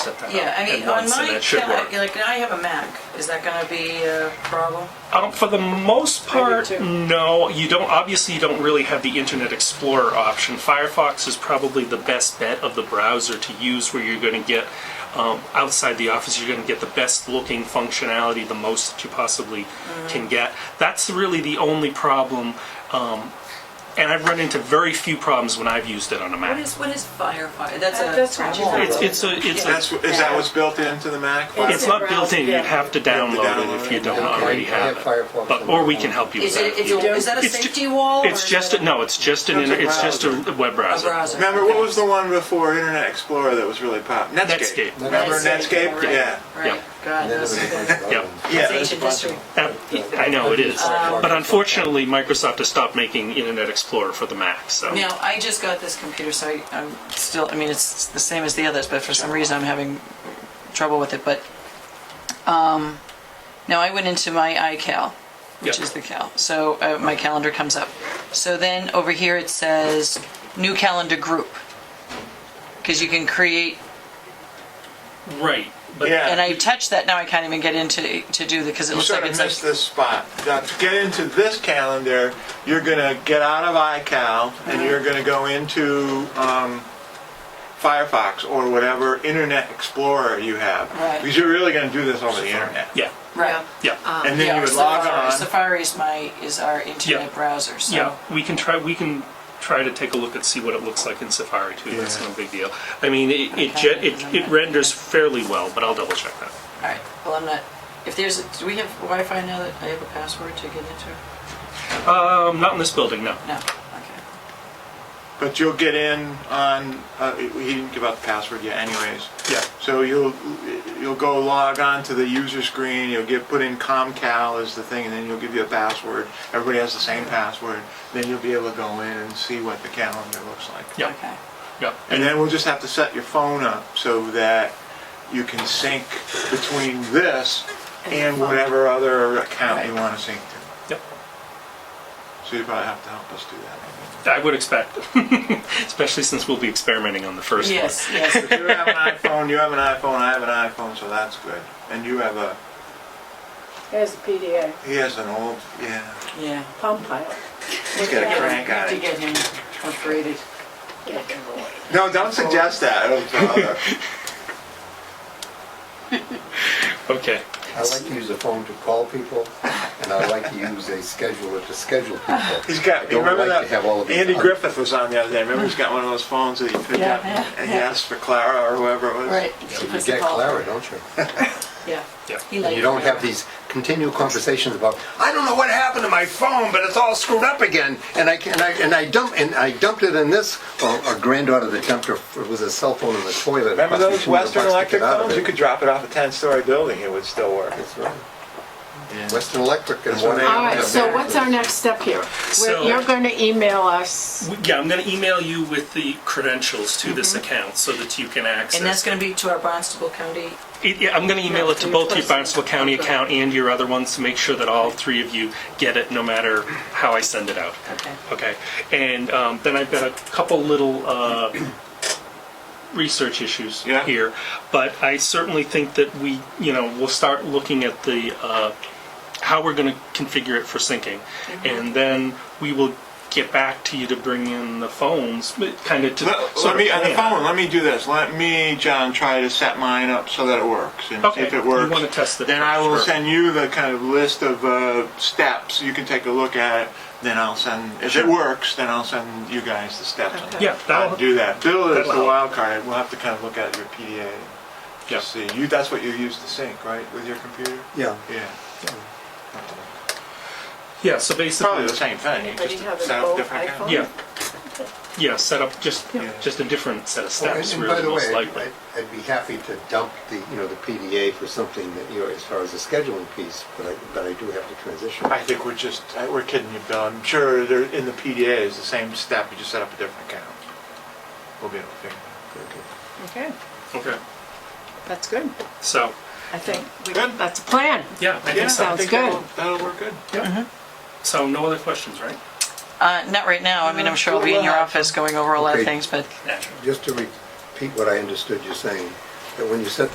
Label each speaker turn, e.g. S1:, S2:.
S1: that
S2: Yeah,
S1: up
S2: I mean,
S1: at
S2: on
S1: once,
S2: my,
S1: and that should
S2: cal-
S1: work.
S2: like, I have a Mac, is that gonna be a problem?
S1: Um, for the most part,
S2: too.
S1: no. You don't. Obviously, you don't really have the Internet Explorer option. Firefox is probably the best bet of the browser to use, where you're going to get um, outside the office. You're going to get the best looking functionality, the most that you possibly can get. That's really the only problem. Um, and I've run into very few problems when I've used it on a Mac.
S2: What is, what is Firefly? That's a.
S3: That's what you
S2: wall.
S3: thought.
S1: it's, it's a it's a,
S4: That's, wh- is that what's built into the Mac? Wow.
S1: It's not built in, you'd have to download it
S4: download
S1: if
S4: it.
S1: you don't
S5: Okay,
S1: already
S5: I
S1: have
S5: have
S1: it.
S5: Firefox
S1: But,
S5: on
S1: or
S5: my
S1: we
S5: phone.
S1: can help you with
S2: Is it,
S1: that.
S2: it's a- is that a
S1: It's ju-
S2: safety wall? or
S1: It's
S2: is
S1: just,
S2: it
S1: a- no, it's just an,
S4: It's a
S1: inter- it's just a
S4: browser.
S1: web
S2: A
S1: browser.
S2: browser.
S4: Remember, what was the one before Internet Explorer that was really pop? Netscape.
S1: Netscape.
S4: Remember
S2: Netscape,
S4: Netscape?
S2: right.
S4: Yeah.
S2: Right,
S1: Yep.
S2: God,
S5: And then
S2: that's,
S5: there was a
S2: that's
S5: bunch of
S1: Yep.
S5: other ones.
S4: Yeah. there's a
S2: ancient
S4: bunch
S2: history.
S4: of-
S1: Uh, I know it is,
S5: Um,
S1: but unfortunately, Microsoft has stopped making Internet Explorer for the Mac, so.
S2: Now, I just got this computer, so I- I'm still, I mean, it's the same as the others, but for some reason I'm having trouble with it, but, um, now I went into my iCal, which
S1: Yep.
S2: is the cal, so uh, my calendar comes up. So then over here it says new calendar group, because you can create,
S1: Right, but,
S4: Yeah.
S2: and I touched that, now I can't even get into, to do the, because it
S4: You
S2: looks
S4: sort
S2: like it's
S4: of missed
S2: like,
S4: this spot. Now, to get into this calendar, you're gonna get out of iCal and you're gonna go into um, Firefox or whatever Internet Explorer you have.
S2: Right.
S4: Because you're really gonna do this over the internet.
S1: yeah,
S2: right.
S1: yeah,
S4: And then
S2: Yeah,
S4: you would log
S2: Safari-
S4: on.
S2: Safari is my, is our internet
S1: Yeah.
S2: browser, so.
S1: yeah. We can try, we can try to take a look and see what it looks like in Safari too, that's
S4: Yeah.
S1: no big deal. I mean, it, it
S2: Okay,
S1: gen- it
S2: I'm
S1: it
S2: not-
S1: renders fairly well, but I'll double check that.
S2: All right, well, I'm not, if there's, do we have Wi-Fi now that I have a password to get into?
S1: Um, not in this building, no.
S2: No, okay.
S4: But you'll get in on, uh, he didn't give out the password yet anyways.
S1: Yeah.
S4: So you'll, you'll go log on to the user screen, you'll get, put in ComCal as the thing, and then you'll give you a password. Everybody has the same password, then you'll be able to go in and see what the calendar looks like.
S1: Yeah,
S2: Okay.
S1: yeah.
S4: And then we'll just have to set your phone up so that you can sync between this and whatever other account you want to sync to.
S1: Yep.
S4: So you probably have to help us do that.
S1: I would expect, especially since we'll be experimenting on the first
S2: Yes, yes.
S4: If you have an iPhone, you have an iPhone, I have an iPhone, so that's good. And you have a,
S3: There's PDA,
S4: he has an old, yeah.
S2: Yeah.
S3: pump pilot.
S4: He's got a crank on
S2: To
S4: it.
S2: get him upgraded.
S4: No, don't suggest that. Oh, It'll-
S1: one. Okay.
S5: I like to use a phone to call people, and I like to use a scheduler to schedule people.
S4: He's got, you
S5: Don't
S4: remember
S5: like to
S4: that,
S5: have all of these
S4: Andy
S5: on.
S4: Griffith was on the other day, remember he's got one of those phones that he picked
S2: Yeah,
S4: up
S2: yeah,
S4: and he
S2: yeah.
S4: asked for Clara or whoever it was.
S2: Right.
S5: So you get Clara, don't you?
S2: Yeah.
S1: Yeah.
S2: He
S5: And
S2: liked
S5: you don't
S2: Clara.
S5: have these continual conversations about, I don't know what happened to my phone, but it's all screwed up again, and I can, and I, and I dump, and I dumped it in this, or a granddaughter that dumped her, it was a cell phone in the toilet. It
S4: Remember
S5: cost me
S4: those
S5: 200
S4: Western
S5: bucks to
S4: Electric
S5: get out of
S4: phones?
S5: it.
S4: You could drop it off a ten-story building, it would still work.
S5: That's right. Western Electric and
S4: That's what
S5: one.
S4: they
S3: All
S4: have
S3: right, so what's our next step here?
S1: So-
S3: We're- You're going to email us.
S1: We- Yeah, I'm going to email you with the credentials to this account so that you can access.
S2: Mm-hmm. And that's gonna be to our Barnstable County,
S1: It- yeah, I'm going to email it to both your Barnstable County account and your other ones to make sure that all three of you get it, no matter how I send it out.
S2: okay.
S1: Okay. And um, then I've got a couple little uh, research issues
S4: Yeah.
S1: here, but I certainly think that we, you know, we'll start looking at the uh, how we're going to configure it for syncing, and then we will get back to you to bring in the phones, kind of to
S4: Let,
S1: sort
S4: let
S1: of
S4: me, on
S1: plan.
S4: the phone, let me do this. Let me, John, try to set mine up so that it works. And
S1: Okay,
S4: if
S1: you
S4: it works,
S1: wanna test it
S4: then I will
S1: first, sure.
S4: send you the kind of list of uh, steps. You can take a look at it. Then I'll send, if it works, then I'll send you guys the steps.
S3: Okay.
S1: Yeah,
S4: I'll
S1: that'll
S4: do that. Bill is
S1: that'll
S4: the
S1: help.
S4: wild card. We'll have to kind of look at your PDA. and
S1: Yeah.
S4: just See, you, that's what you use to sync, right, with your computer?
S5: Yeah.
S4: Yeah.
S1: Yeah, so
S4: It's probably
S1: basically,
S4: the same thing. You
S3: Anybody
S4: just
S3: have an
S4: set up
S3: old
S4: different kind.
S3: iPhone?
S1: yeah, yeah, set up just
S4: Yeah.
S1: just a different set of
S5: Oh, and-
S1: steps,
S5: and
S1: really
S5: by the
S1: most
S5: way,
S1: likely.
S5: I'd- I'd be happy to dump the, you know, the PDA for something that, you know, as far as the scheduling piece, but I, but I do have to transition.
S4: I think we're just, I- we're kidding you, Bill. I'm sure they're, in the PDA is the same step, you just set up a different account. We'll be able to figure it
S5: Okay.
S3: Okay,
S1: Okay,
S3: that's good.
S1: so
S3: I think we-
S4: Good.
S3: that's a plan.
S1: yeah, I
S4: out.
S1: think so.
S3: sounds good.
S4: That'll that'll work good.
S5: Mm-hmm.
S1: So no other questions, right?
S2: Uh, not right now, I mean, I'm sure I'll be in your office going over a lot of
S5: Okay.
S2: things, but.
S1: Naturally.
S5: Just to repeat what I understood you saying, that when you set